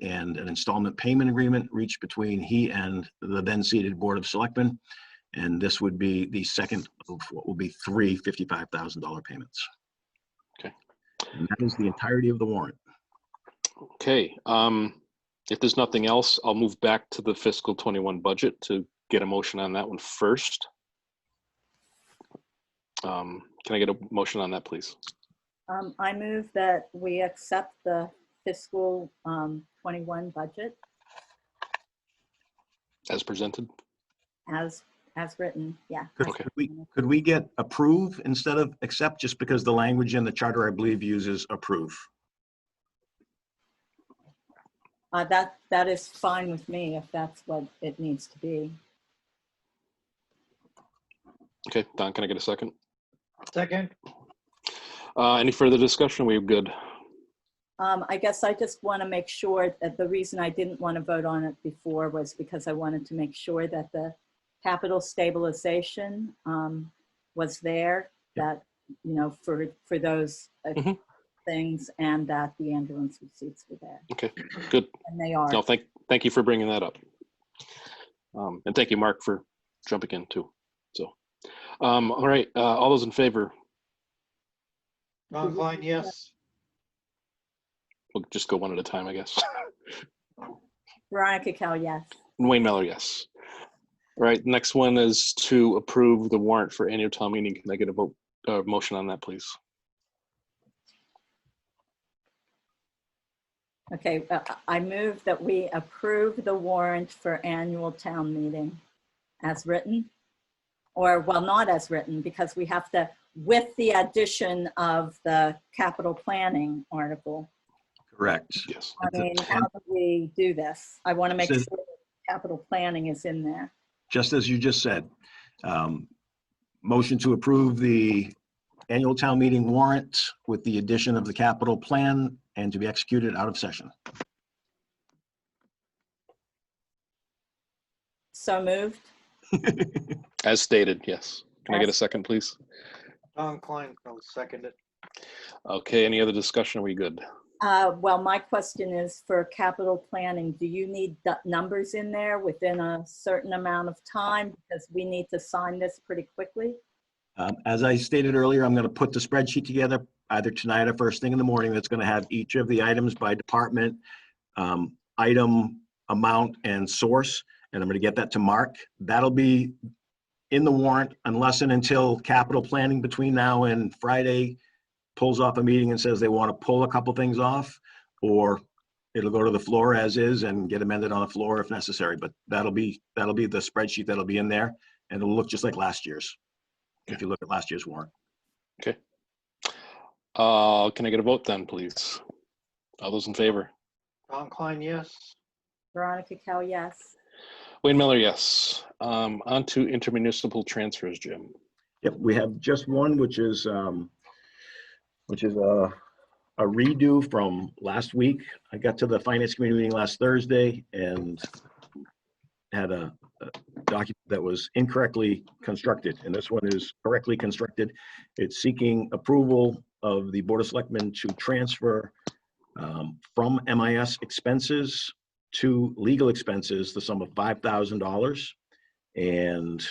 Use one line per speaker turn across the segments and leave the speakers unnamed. and an installment payment agreement reached between he and the then seated Board of Selectmen. And this would be the second of what will be three $55,000 payments.
Okay.
And that is the entirety of the warrant.
Okay, um, if there's nothing else, I'll move back to the fiscal twenty-one budget to get a motion on that one first. Um, can I get a motion on that, please?
Um, I move that we accept the fiscal, um, twenty-one budget
As presented?
as, as written, yeah.
Could
Okay.
could we, could we get approve instead of accept, just because the language in the charter, I believe, uses approve?
Uh, that, that is fine with me if that's what it needs to be.
Okay, Don, can I get a second?
Second,
Uh, any further discussion? We're good.
Um, I guess I just want to make sure that the reason I didn't want to vote on it before was because I wanted to make sure that the capital stabilization, um, was there, that, you know, for, for those uh,
Mhm.
things and that the ambulance receipts were there.
Okay, good.
And they are.
No, thank, thank you for bringing that up. Um, and thank you, Mark, for jumping in too. So, um, all right, uh, all those in favor,
Ron Klein, yes.
we'll just go one at a time, I guess.
Veronica Cal, yes.
And Wayne Miller, yes. All right, next one is to approve the warrant for annual town meeting. Can I get a vote, uh, motion on that, please?
Okay, uh, I move that we approve the warrant for annual town meeting as written. Or, well, not as written, because we have to, with the addition of the capital planning article.
Correct.
Yes.
I
It's a-
mean, how do we do this? I want to make sure
Says-
that capital planning is in there.
just as you just said. Um, Motion to approve the annual town meeting warrant with the addition of the capital plan and to be executed out of session.
So moved.
As stated, yes. Can I get a
As-
second, please?
Ron Klein, I'll second it.
Okay, any other discussion? Are we good?
Uh, Well, my question is for capital planning, do you need du- numbers in there within a certain amount of time? Because we need to sign this pretty quickly.
Um, As I stated earlier, I'm going to put the spreadsheet together either tonight or first thing in the morning. That's going to have each of the items by department, um, item, amount, and source. And I'm going to get that to Mark. That'll be in the warrant unless and until capital planning between now and Friday pulls off a meeting and says they want to pull a couple things off, or it'll go to the floor as is and get amended on the floor if necessary. But that'll be, that'll be the spreadsheet that'll be in there, and it'll look just like last year's if you look at last year's warrant.
Uh, can I get a vote then, please? All those in favor?
Ron Klein, yes.
Veronica Cal, yes.
Wayne Miller, yes. Um, on to intermunicipal transfers, Jim.
Yep, we have just one, which is, um, which is a a redo from last week. I got to the finance committee meeting last Thursday and had a a document that was incorrectly constructed, and this one is correctly constructed. It's seeking approval of the Board of Selectmen to transfer um, from MIS expenses to legal expenses, the sum of $5,000. And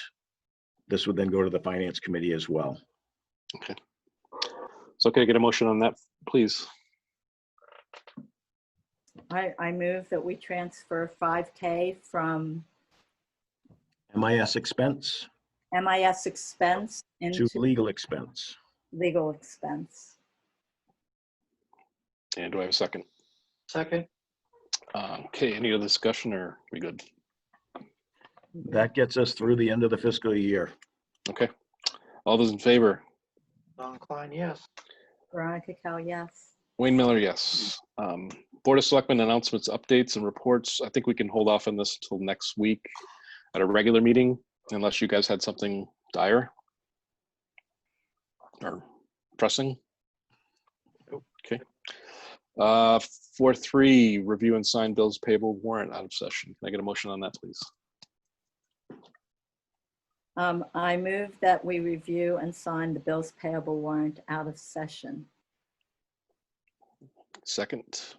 this would then go to the finance committee as well.
So can I get a motion on that, please?
I, I move that we transfer 5K from
MIS expense
MIS expense
to
into
legal expense.
legal expense.
And do I have a second?
Second,
Uh, okay, any other discussion or we good?
That gets us through the end of the fiscal year.
Okay. All those in favor?
Ron Klein, yes.
Veronica Cal, yes.
Wayne Miller, yes. Um, Board of Selectmen announcements, updates, and reports. I think we can hold off on this till next week at a regular meeting, unless you guys had something dire or pressing.
Nope.
Okay. Uh, four three, review and sign bills payable warrant out of session. Can I get a motion on that, please?
Um, I move that we review and sign the bills payable warrant out of session.
Second,